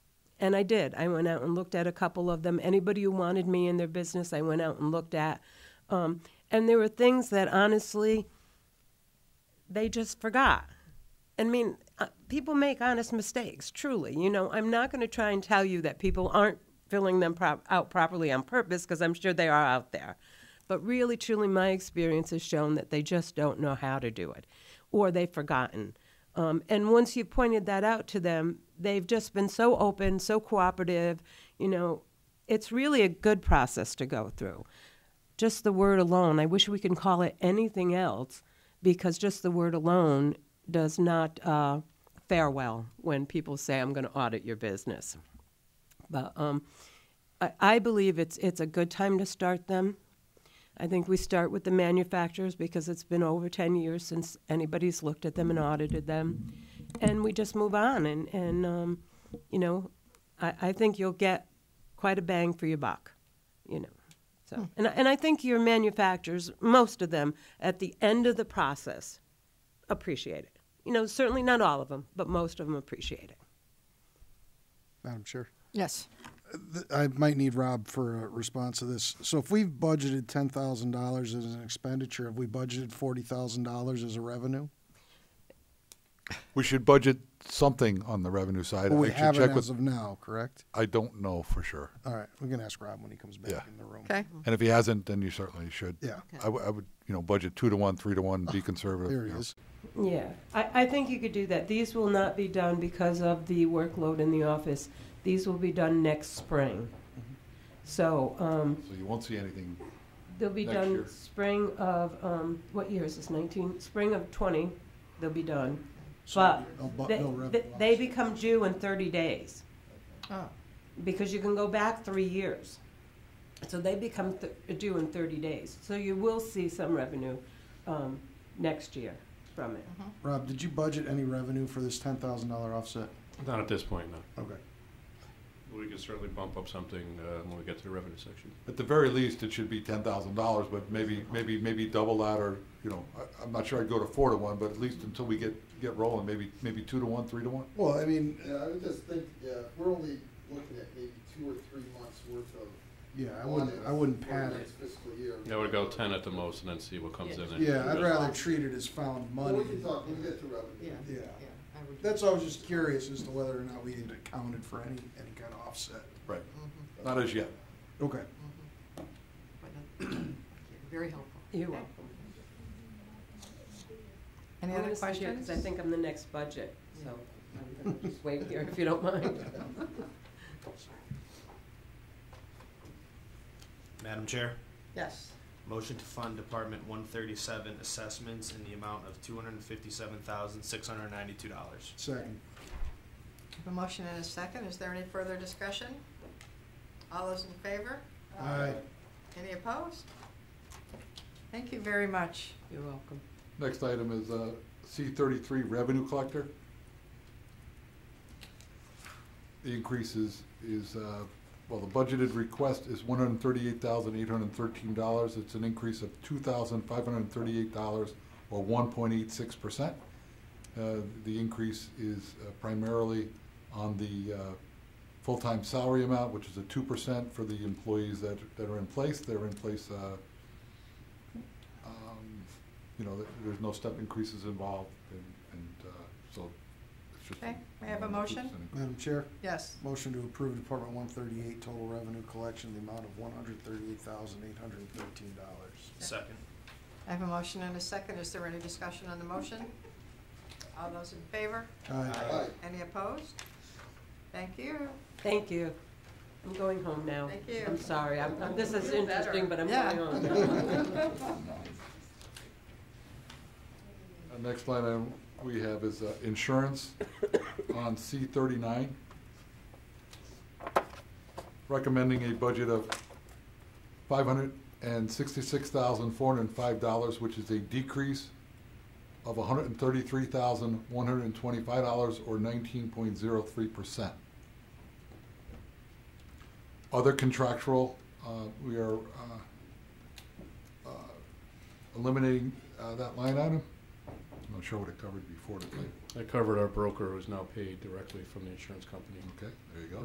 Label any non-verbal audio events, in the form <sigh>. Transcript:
And I did. I went out and looked at a couple of them. Anybody who wanted me in their business, I went out and looked at. Um, and there were things that honestly, they just forgot. I mean, uh, people make honest mistakes, truly. You know, I'm not going to try and tell you that people aren't filling them prop- out properly on purpose because I'm sure they are out there. But really, truly, my experience has shown that they just don't know how to do it or they've forgotten. Um, and once you've pointed that out to them, they've just been so open, so cooperative. You know, it's really a good process to go through. Just the word alone, I wish we could call it anything else because just the word alone does not uh, fare well when people say, I'm going to audit your business. But um, I, I believe it's, it's a good time to start them. I think we start with the manufacturers because it's been over 10 years since anybody's looked at them and audited them. And we just move on. And, and um, you know, I, I think you'll get quite a bang for your buck, you know. So, and, I- and I think your manufacturers, most of them, at the end of the process, appreciate it. You know, certainly not all of them, but most of them appreciate it. Madam Chair. Yes. Th- I might need Rob for a response to this. So if we've budgeted ten thousand dollars as an expenditure, have we budgeted forty thousand dollars as a revenue? We should budget something on the revenue side. Well, we I should haven't check as of with, now, correct? I don't know for sure. All right, we can ask Rob when he comes back Yeah. in the room. Okay. And if he hasn't, then you certainly should. Yeah. I, w- I would, you know, budget two to one, three to one, be conservative. There you he know. is. Yeah, I, I think you could do that. These will not be done because of the workload in the office. These will be done next spring. Mm-hmm. So um, So you won't see anything. they'll be Next done year. spring of, um, what year is this, 19? Spring of 20, they'll be done. So But no Oh, bu- they, no revenue th- they become due in 30 days. Oh. because you can go back three years. So they become th- due in 30 days. So you will see some revenue um, next year from it. Rob, did you budget any revenue for this ten thousand dollar offset? Not at this point, no. Okay. We can certainly bump up something uh, when we get to the revenue section. At the very least, it should be ten thousand dollars, but maybe, maybe, maybe double that, or you know, I, I'm not sure I'd go to four to one, but at least until we get get rolling, maybe maybe two to one, three to one. Well, I mean, Yeah, I would just think, yeah, if we're only looking at maybe two or three months worth of. yeah, I wouldn't, audits I wouldn't for pad it. next Fiscal year. Yeah, we'd go ten at the most and then see what comes in. and- Yeah, I'd rather treat it as found Well, money. we can talk, we can get to revenue. Yeah. Yeah. I would- That's why I was just curious as to whether or not we had accounted for any, any kind of offset. Right. mm-hmm, Not as yet. Okay. but that- <coughs> thank you. Very helpful. You're Okay. welcome. Any other questions? Because I think I'm the next budget, so I'm going to just wait here if you don't mind. Madam Chair, Yes. motion to fund Department one thirty-seven assessments in the amount of two hundred and fifty-seven thousand, six hundred and ninety-two dollars. Second. A motion and a second. Is there any further discussion? All those in favor? Aye. Any opposed? Thank you very much. You're welcome. Next item is uh, C33 revenue collector. The increase is, is, uh, well, the budgeted request is $138,813. It's an increase of $2,538 or 1.86%. Uh, The increase is uh, primarily on the uh, full-time salary amount, which is a 2% for the employees that, that are in place. They're in place uh, um, you know, th- there's no step increases involved, and, and, uh, so it's just. Okay, may I have a motion? Madam Chair, Yes. motion to approve Department one thirty-eight total revenue collection, the amount of one hundred thirty-eight thousand, eight hundred and thirteen dollars. Second. I have a motion and a second. Is there any discussion on the motion? All those in favor? Aye. Any opposed? Thank you. Thank you. I'm going home now. Thank you. I'm sorry. I'm, I'm- this is interesting, but I'm Yeah. going home <laughs> now. Uh, next line item we have is, uh, insurance on C thirty-nine. Recommending a budget of five hundred and sixty-six thousand, four hundred and five dollars, which is a decrease of hundred and thirty-three thousand, one hundred and twenty-five dollars, or nineteen point zero three percent. Other contractual, uh, we are, uh, uh, eliminating, uh, that line item. I'm not sure what it covered before, the claim. I covered our broker who's now paid directly from the insurance company. okay, there you go.